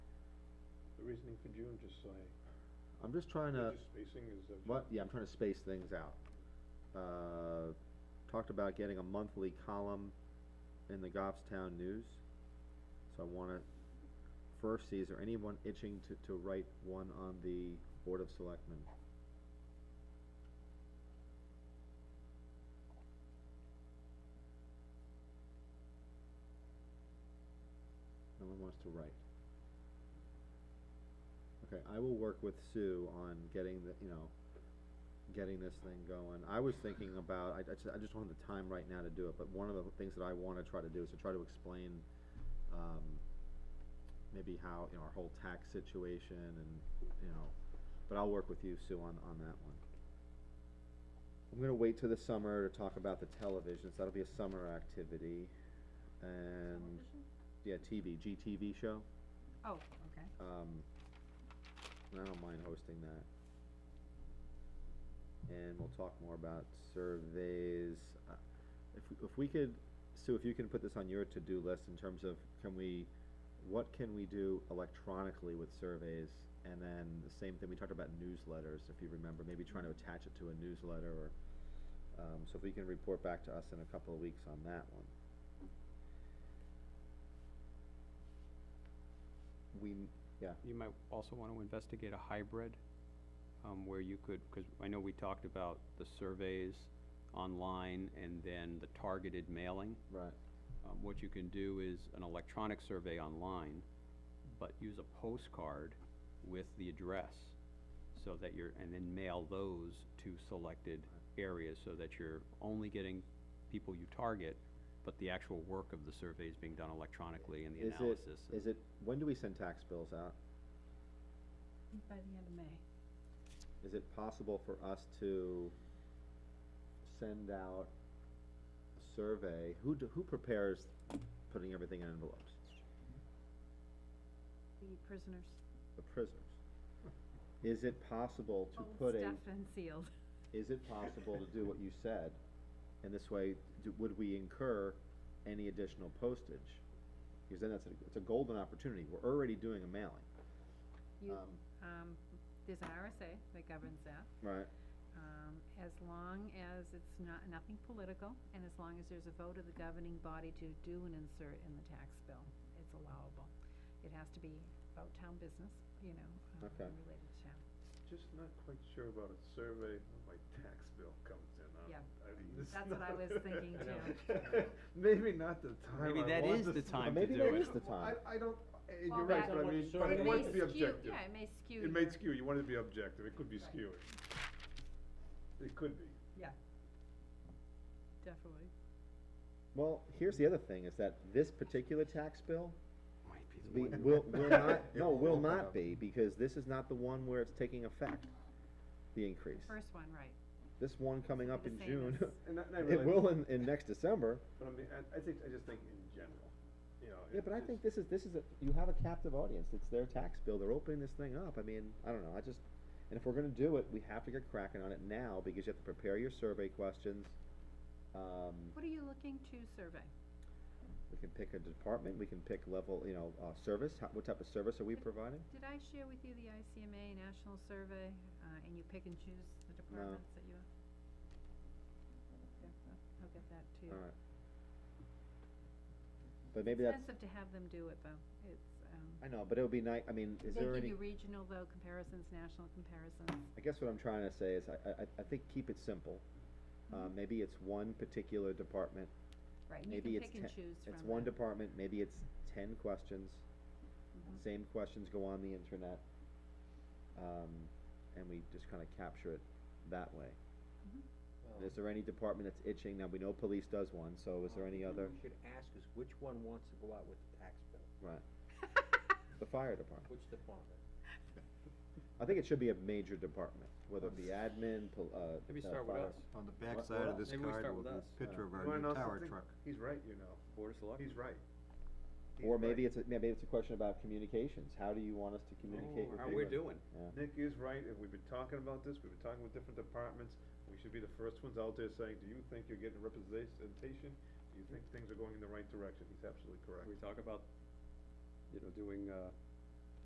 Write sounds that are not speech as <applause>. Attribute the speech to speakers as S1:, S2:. S1: reasoning for June, just so I,
S2: I'm just trying to,
S1: just spacing is, uh,
S2: what, yeah, I'm trying to space things out. Uh, talked about getting a monthly column in the Goffstown News. So I wanna first see, is there anyone itching to, to write one on the Board of Selectmen? No one wants to write. Okay, I will work with Sue on getting the, you know, getting this thing going. I was thinking about, I, I just, I just don't have the time right now to do it, but one of the things that I wanna try to do is to try to explain, um, maybe how, you know, our whole tax situation and, you know, but I'll work with you, Sue, on, on that one. I'm gonna wait till the summer to talk about the televisions, that'll be a summer activity, and, yeah, TV, GTV show.
S3: Oh, okay.
S2: Um, and I don't mind hosting that. And we'll talk more about surveys. Uh, If, we- if we could, Sue, if you can put this on your to-do list in terms of, can we, what can we do electronically with surveys? And then the same thing, we talked about newsletters, if you remember, maybe trying to attach it to a newsletter or, um, so if we can report back to us in a couple of weeks on that one. We, yeah.
S4: You might also want to investigate a hybrid, um, where you could, because I know we talked about the surveys online and then the targeted mailing.
S2: Right.
S4: Um, what you can do is an electronic survey online, but use a postcard with the address, so that you're, and then mail those to selected areas, so that you're only getting people you target, but the actual work of the survey is being done electronically and the
S2: Is
S4: analysis.
S2: it,
S4: and-
S2: is it, when do we send tax bills out?
S3: By the end of May.
S2: Is it possible for us to send out a survey? Who, do- who prepares putting everything in envelopes?
S3: The prisoners.
S2: The prisoners. Is it possible to
S3: Old
S2: put a,
S3: Stuff and
S1: <laughs>
S3: sealed.
S2: is it possible to do what you said? And this way, do- would we incur any additional postage? Because then that's, a- it's a golden opportunity. We're already doing a mailing,
S3: You,
S2: Um,
S3: um, there's an RSA that governs that.
S2: right?
S3: Um, as long as it's not, nothing political, and as long as there's a vote of the governing body to do an insert in the tax bill, it's allowable. It has to be about town business, you know, um,
S2: Okay.
S3: related to town.
S1: just not quite sure about a survey when my tax bill comes in. I'm-
S3: Yeah.
S1: I'm just
S3: That's what I
S1: not- <laughs>
S3: was thinking
S1: too. <laughs> Maybe not the time
S4: Maybe
S1: I
S4: that
S1: want
S4: is
S1: to
S4: the
S1: s-
S4: time
S2: Maybe
S4: to
S2: that
S4: do it.
S2: is the time.
S1: I, I don't, uh,
S3: Well,
S1: you're right,
S3: that-
S1: but I mean, but
S3: It
S1: it
S3: may
S1: wants to be
S3: skew-
S1: objective.
S3: Yeah, it may skew.
S1: It may
S3: your-
S1: skew, you want it to be objective, it could be
S3: Right.
S1: skewing. It could be.
S3: Yeah. Definitely.
S2: Well, here's the other thing, is that this particular tax bill
S4: Might be the
S2: We,
S4: one.
S2: will,
S1: <laughs>
S2: will not,
S1: It
S2: no, will
S1: won't
S2: not
S1: have.
S2: be, because this is not the one where it's taking effect, the increase.
S3: First one, right.
S2: This one coming up
S3: the
S2: in
S3: same
S2: June, <laughs>
S3: as-
S1: And I, and I
S2: it
S1: realize.
S2: will in, in next
S1: <laughs>
S2: December,
S1: But I mean, I, I think, I just think in general, you know.
S2: yeah,
S1: it
S2: but I
S1: just-
S2: think this is, this is, a you have a captive audience, it's their tax bill, they're opening this thing up, I mean, I don't know, I just, and if we're gonna do it, we have to get cracking on it now, because you have to prepare your survey questions. Um,
S3: What are you looking to survey?
S2: we can pick a department, we can pick level, you know, uh, service, how, what type of service are we providing?
S3: Did I share with you the ICMA National Survey, uh, and you pick and choose the departments that you? Okay, I'll- I'll get that to you.
S2: Alright. But maybe that's.
S3: It's expensive to have them do it, though. It's, um,
S2: I know, but it would be nice, I mean,
S3: they
S2: is there
S3: give
S2: any,
S3: you regional, though, comparisons, national comparisons.
S2: I guess what I'm trying to say is, I, I, I think keep it simple. Uh,
S3: Mm-hmm.
S2: maybe it's one particular department,
S3: Right, and you
S2: maybe it's
S3: can pick
S2: ten,
S3: and choose from.
S2: it's one
S3: the-
S2: department, maybe it's ten questions.
S3: Mhm.
S2: Same questions go on the internet. Um, and we just kinda capture it that way.
S5: Well,
S2: Is there any department that's itching? Now, we know police does one, so is there any other,
S5: What we should ask is which one wants to go out with the tax bill,
S3: Mm-hmm.
S2: right?
S3: <laughs>
S2: The fire department.
S5: which department?
S2: I think it should be a major department, whether it be admin, pol- uh.
S4: Maybe
S2: uh,
S4: start with
S2: fire- uh,
S4: us.
S6: On the
S2: What-
S6: backside of
S2: what
S6: this
S4: Maybe we
S6: card
S4: start
S6: will be
S4: with us.
S6: a picture of our
S1: You wanna know
S6: new tower
S1: something?
S6: truck.
S1: He's right, you know,
S4: Board of Selectmen.
S1: he's right. He's
S2: Or
S1: right.
S2: maybe it's, a- maybe it's a question about communications, how do you want us to communicate with
S4: Oh, How
S2: people?
S4: we're doing.
S2: Yeah.
S1: Nick is right, and we've been talking about this, we've been talking with different departments, we should be the first ones out there saying, do you think you're getting representation? Do you think things are going in the right direction? He's absolutely correct.
S4: We talk about, you know, doing, uh,